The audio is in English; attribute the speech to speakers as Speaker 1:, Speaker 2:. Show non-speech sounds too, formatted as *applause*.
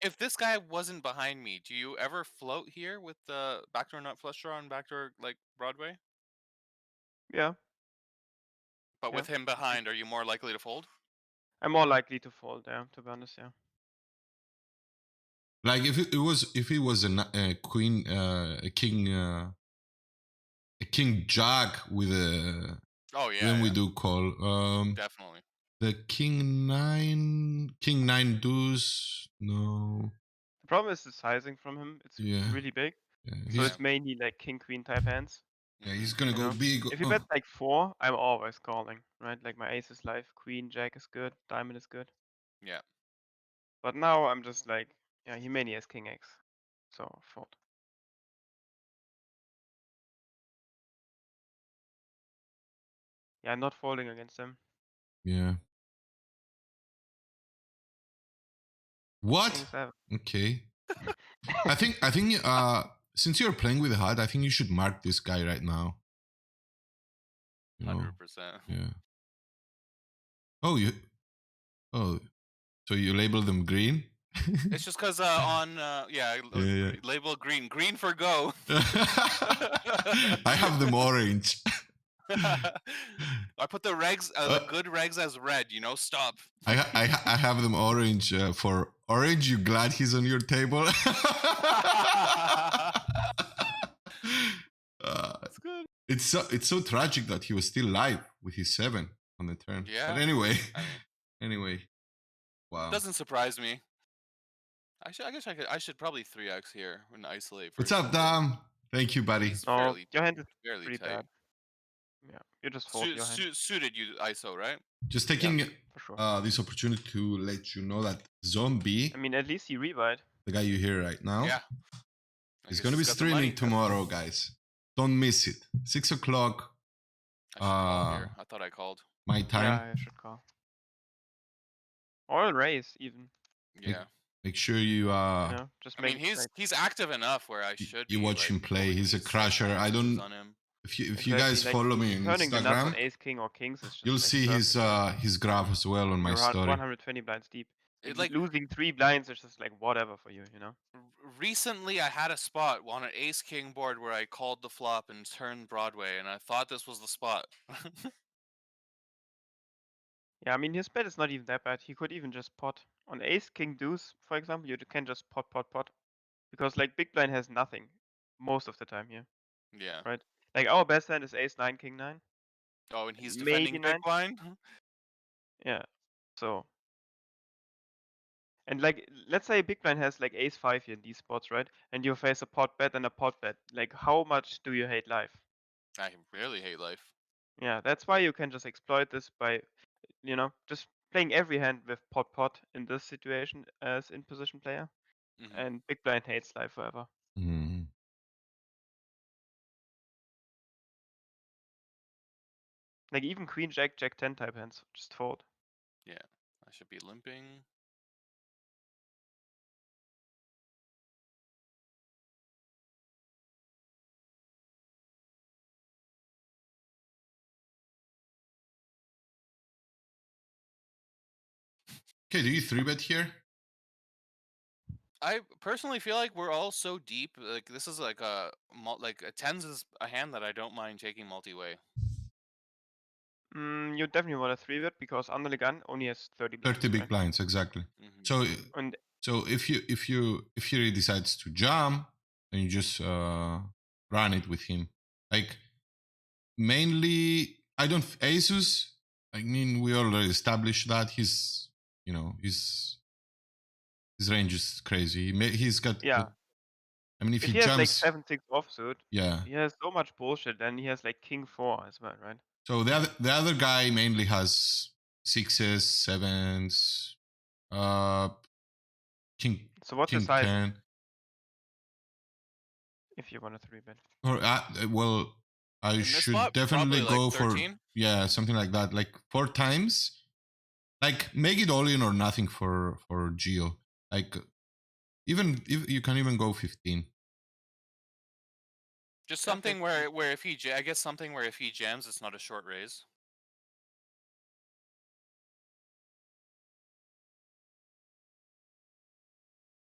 Speaker 1: If this guy wasn't behind me, do you ever float here with the backdoor nut flusher on backdoor like Broadway?
Speaker 2: Yeah,
Speaker 1: But
Speaker 2: yeah.
Speaker 1: with him behind, are you more likely to fold?
Speaker 2: I'm more likely to fold there, to be honest. Yeah.
Speaker 3: Like if it, it was if it was a kn- a queen uh, a king uh, a king jack with a
Speaker 1: Oh yeah,
Speaker 3: then we
Speaker 1: yeah,
Speaker 3: do call um
Speaker 1: definitely.
Speaker 3: the king nine king nine deuce no
Speaker 2: The problem is the sizing from him. It's
Speaker 3: Yeah.
Speaker 2: really big,
Speaker 3: yeah,
Speaker 2: so
Speaker 3: he's,
Speaker 1: Yeah.
Speaker 2: it's mainly like king queen type hands.
Speaker 3: yeah,
Speaker 1: Mm-hmm.
Speaker 3: he's gonna go
Speaker 2: Yeah.
Speaker 3: big
Speaker 2: If you
Speaker 3: oh,
Speaker 2: bet like four, I'm always calling, right? Like my ace is live, queen, jack is good, diamond is good.
Speaker 1: Yeah.
Speaker 2: But now I'm just like, yeah, he mainly has king x, so fold. Yeah, I'm not folding against him.
Speaker 3: yeah
Speaker 2: I
Speaker 3: what
Speaker 2: think it's seven.
Speaker 3: okay
Speaker 2: *laughs*
Speaker 3: I think I think uh since you're playing with HUD, I think you should mark this guy right now. You know,
Speaker 1: Hundred percent.
Speaker 3: Yeah. Oh, you. Oh, so you label them green.
Speaker 1: It's just because uh, on uh, yeah, l-
Speaker 3: *laughs* Yeah, yeah.
Speaker 1: gre- label green, green for
Speaker 3: *laughs*
Speaker 1: go. *laughs*
Speaker 3: I have them orange.
Speaker 1: I put the regs, uh, the
Speaker 3: Uh,
Speaker 1: good regs as red. You know, stop.
Speaker 3: I ha- I, ha- I have them orange uh, for orange. You glad he's on your table? *laughs* Uh,
Speaker 1: That's good.
Speaker 3: it's so it's so tragic that he was still live with his seven on the turn.
Speaker 1: Yeah,
Speaker 3: But anyway,
Speaker 1: I mean-
Speaker 3: *laughs* anyway, wow.
Speaker 1: Doesn't surprise me. I should. I guess I could. I should probably three x here and isolate.
Speaker 3: What's
Speaker 1: versus
Speaker 3: up,
Speaker 1: the
Speaker 3: Dom? Thank you, buddy.
Speaker 1: It's
Speaker 2: No,
Speaker 1: fairly,
Speaker 2: your hand is
Speaker 1: fairly
Speaker 2: pretty
Speaker 1: tight.
Speaker 2: bad. Yeah, you just fold
Speaker 1: Su-
Speaker 2: your hand
Speaker 1: su- suited you ISO, right?
Speaker 3: Just taking
Speaker 2: for sure.
Speaker 3: uh, this opportunity to let you know that Zombie,
Speaker 2: I mean, at least he rebite.
Speaker 3: the guy you hear right now,
Speaker 1: Yeah. I
Speaker 3: is
Speaker 1: guess
Speaker 3: going to be
Speaker 1: he's got the money,
Speaker 3: streaming
Speaker 1: but
Speaker 3: tomorrow, guys. Don't miss it. Six o'clock
Speaker 1: I should call here.
Speaker 3: uh,
Speaker 1: I thought I called.
Speaker 3: my time.
Speaker 2: Yeah, I should call. Or raise even.
Speaker 1: Yeah.
Speaker 3: Make sure you uh,
Speaker 2: you know, just
Speaker 1: I
Speaker 2: make
Speaker 1: mean,
Speaker 2: it
Speaker 1: he's
Speaker 2: like-
Speaker 1: he's active enough where I
Speaker 3: y-
Speaker 1: should.
Speaker 3: you
Speaker 1: be,
Speaker 3: watch
Speaker 1: like,
Speaker 3: him play.
Speaker 1: pulling
Speaker 3: He's a
Speaker 1: these same
Speaker 3: crusher. I
Speaker 1: axes
Speaker 3: don't.
Speaker 1: On him.
Speaker 3: If you if you
Speaker 2: Exactly,
Speaker 3: guys
Speaker 2: like,
Speaker 3: follow me on
Speaker 2: turning the nuts on
Speaker 3: Instagram,
Speaker 2: ace king or kings is just
Speaker 3: you'll
Speaker 2: like
Speaker 3: see his
Speaker 2: perfect.
Speaker 3: uh his graph as well on my
Speaker 2: You're around
Speaker 3: story.
Speaker 2: 120 blinds deep.
Speaker 1: It,
Speaker 2: And
Speaker 1: like
Speaker 2: losing three blinds is just like whatever for you, you know.
Speaker 1: r- recently, I had a spot on an ace king board where I called the flop and turned Broadway, and I thought this was the spot. *laughs*
Speaker 2: Yeah, I mean his bet is not even that bad. He could even just pot on ace king deuce, for example. You d- can just pot pot pot because like big blind has nothing most of the time here.
Speaker 1: yeah.
Speaker 2: Like our best hand is ace nine king nine.
Speaker 1: Oh, and he's
Speaker 2: Maybe
Speaker 1: defending big
Speaker 2: nine.
Speaker 1: blind.
Speaker 2: Yeah, so. And like, let's say big blind has like ace five here in these spots, right? And you face a pot bet and a pot bet. Like, how much do you hate life?
Speaker 1: I really hate life.
Speaker 2: Yeah, that's why you can just exploit this by, you know, just playing every hand with pot pot in this situation as in position player.
Speaker 1: Mhm.
Speaker 3: Mm-hmm.
Speaker 2: And big blind hates life forever.
Speaker 3: Mhm.
Speaker 2: Like even queen jack jack ten type hands just fold.
Speaker 1: I should be limping.
Speaker 3: Okay, do you three bet here?
Speaker 1: I personally feel like we're all so deep. Like this is like a mul- like a tens is a hand that I don't mind taking multi way.
Speaker 2: Mm, you definitely want a three bet because under the gun only has thirty. blinds,
Speaker 3: Thirty big
Speaker 2: right?
Speaker 3: blinds exactly.
Speaker 1: hmm
Speaker 3: So uh,
Speaker 2: And
Speaker 3: so if you if you if he really decides to jump, then you just uh, run it with him. Like mainly, I don't Asus. I mean, we already established that he's you know his his range is crazy. He may, he's got
Speaker 2: Yeah.
Speaker 3: good- I mean, if,
Speaker 2: if
Speaker 3: he,
Speaker 2: he has like
Speaker 3: jumps,
Speaker 2: seven six offsuit,
Speaker 3: yeah.
Speaker 2: He has so much bullshit, and he has like king four as well, right?
Speaker 3: So the other, the other guy mainly has sixes, sevens, uh, king
Speaker 2: So what's
Speaker 3: king
Speaker 2: the size
Speaker 3: ten.
Speaker 2: if you want a three bet?
Speaker 3: Or uh, uh, well, I
Speaker 1: In this
Speaker 3: should
Speaker 1: spot,
Speaker 3: definitely
Speaker 1: probably, like,
Speaker 3: go for
Speaker 1: 13?
Speaker 3: yeah something like that, like four times. Like make it all in or nothing for for Geo. Like even if you can even go fifteen.
Speaker 1: Just
Speaker 2: Yeah,
Speaker 1: something
Speaker 2: that's-
Speaker 1: where where if he ja- I guess something where if he jams, it's not a short raise.